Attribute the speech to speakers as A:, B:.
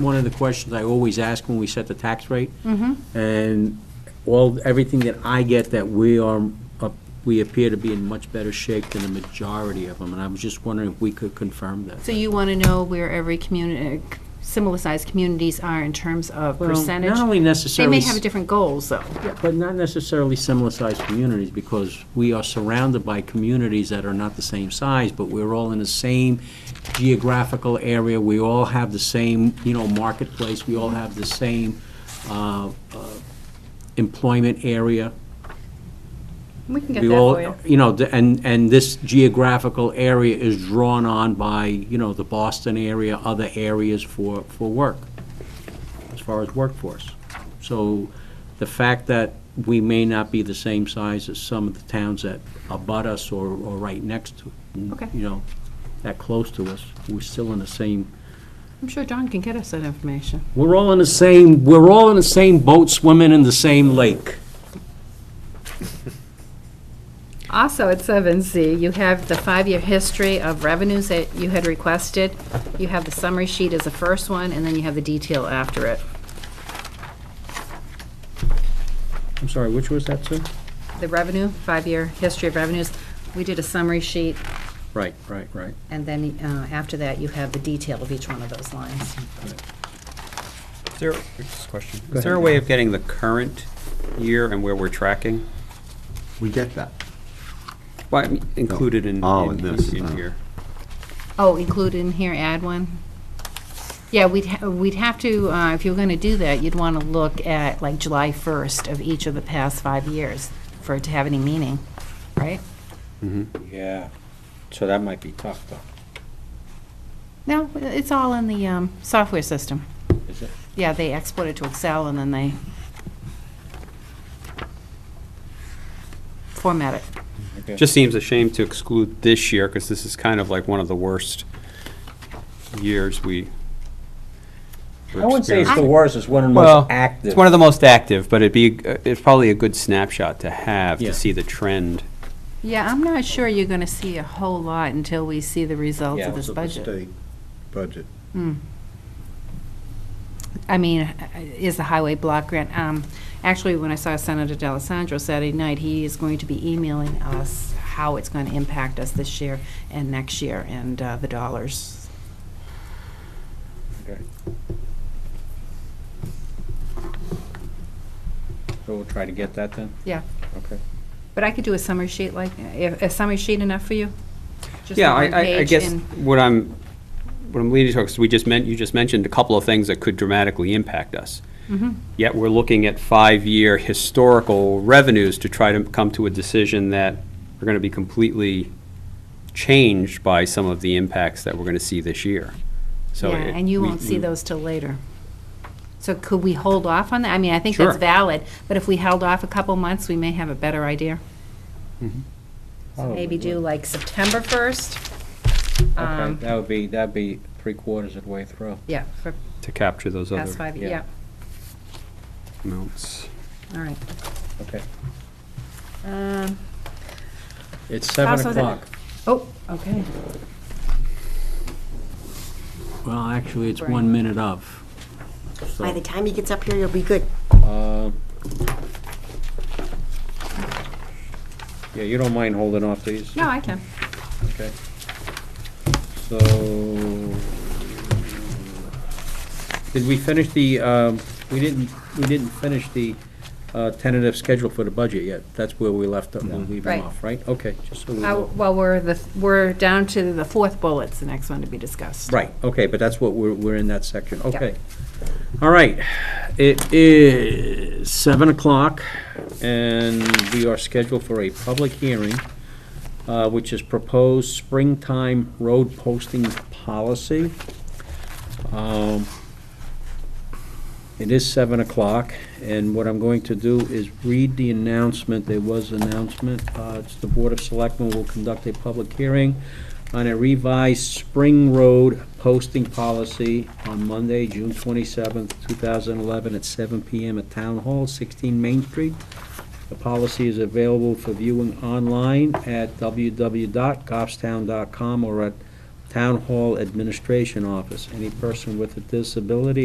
A: one of the questions I always ask when we set the tax rate.
B: Mm-hmm.
A: And all, everything that I get that we are, up- we appear to be in much better shape than the majority of them. And I was just wondering if we could confirm that.
B: So you want to know where every community, similar-sized communities are in terms of
A: Well,
B: percentage?
A: Not only
B: They
A: necessarily.
B: may have different goals, though.
A: Yeah, But not necessarily similar-sized communities, because we are surrounded by communities that are not the same size, but we're all in the same geographical area, we all have the same, you know, marketplace, we all have the same uh, uh, employment area.
B: We can get
A: We
B: that
A: all,
B: for you.
A: You know, the- and, and this geographical area is drawn on by, you know, the Boston area, other areas for, for work, as far as workforce. So the fact that we may not be the same size as some of the towns that abut us or, or right next to,
B: Okay.
A: you know, that close to us, we're still in the same,
B: I'm sure John can get us that information.
A: we're all in the same, we're all in the same boat swimming in the same lake.
B: Also, at 7C, you have the five-year history of revenues that you had requested. You have the summary sheet as the first one, and then you have the detail after it.
A: I'm sorry, which was that, sir?
B: The revenue, five-year history of revenues, we did a summary sheet,
A: Right, right, right.
B: and then uh, after that, you have the detail of each one of those lines.
C: Is there, just a question,
A: Go
C: is there a
A: ahead.
C: way of getting the current year and where we're tracking?
D: We get that.
C: Well, I mean, included in,
D: Oh,
C: in
D: in this,
C: in- in
D: uh,
C: here.
B: Oh, include in here, add one? Yeah, we'd, ha- we'd have to, uh, if you were going to do that, you'd want to look at like July 1st of each of the past five years for it to have any meaning, right?
A: Yeah, so that might be tough, though,
B: No, it's all in the um, software system.
A: is it?
B: Yeah, they export it to Excel and then they format it.
A: Okay.
C: Just seems a shame to exclude this year, because this is kind of like one of the worst years we. were
A: I wouldn't say it's the
C: experiencing.
A: worst, it's one of the
C: Well,
A: most active.
C: it's one of the most active, but it'd be, uh, it's probably a good snapshot to have,
A: Yeah.
C: to see the trend.
B: Yeah, I'm not sure you're going to see a whole lot until we see the results
A: Yeah,
B: of this
D: It's a
B: budget.
D: state budget.
B: I mean, uh, is the highway block grant, um, actually, when I saw Senator D'Alessandro Saturday night, he is going to be emailing us how it's going to impact us this year and next year and uh, the dollars.
A: Okay. So we'll try to get that then?
B: Yeah,
A: Okay.
B: but I could do a summary sheet like, a summary sheet enough for you? Just
C: Yeah,
B: the
C: I,
B: one
C: I- I
B: page
C: guess
B: and-
C: what I'm, what I'm leading to, because we just meant, you just mentioned a couple of things that could dramatically impact us.
B: Mm-hmm.
C: Yet we're looking at five-year historical revenues to try to come to a decision that are going to be completely changed by some of the impacts that we're going to see this year. So
B: Yeah,
C: it-
B: and you
C: we-
B: won't see
C: we-
B: those till later. So could we hold off on that? I mean, I think that's
C: Sure.
B: valid, but if we held off a couple months, we may have a better idea. So
C: Oh,
B: maybe do like September 1st.
A: Okay,
B: um,
A: that would be, that'd be three quarters of the way through.
B: Yeah, for
C: To capture those
B: past
C: other
B: five,
A: yeah.
B: yeah,
C: amounts.
B: all right.
A: Okay.
B: Um,
A: It's seven
B: Also the-
A: o'clock.
B: Oh, okay.
A: Well, actually, it's
B: Right.
A: one minute of.
E: By the time he gets up here, you'll be good.
A: Uh, Yeah, you don't mind holding off these?
B: No, I can.
A: Okay. So, did we finish the, um, we didn't, we didn't finish the uh, tentative schedule for the budget yet. That's where we left, we leave
B: Right.
A: them off, right? Okay, just so we
B: Uh,
A: know.
B: Well, we're the, we're down to the fourth bullet's the next one to be discussed.
A: Right, okay, but that's what, we're, we're in that section, okay. All right, it is seven o'clock, and we are scheduled for a public hearing, uh, which is proposed springtime road posting policy. Um, It is seven o'clock, and what I'm going to do is read the announcement, there was announcement, uh, it's the Board of Selectmen will conduct a public hearing on a revised Spring Road posting policy on Monday, June 27th, 2011, at 7 PM at Town Hall, 16 Main Street. The policy is available for viewing online at www.goffstown.com or at Town Hall Administration Office. Any person with a disability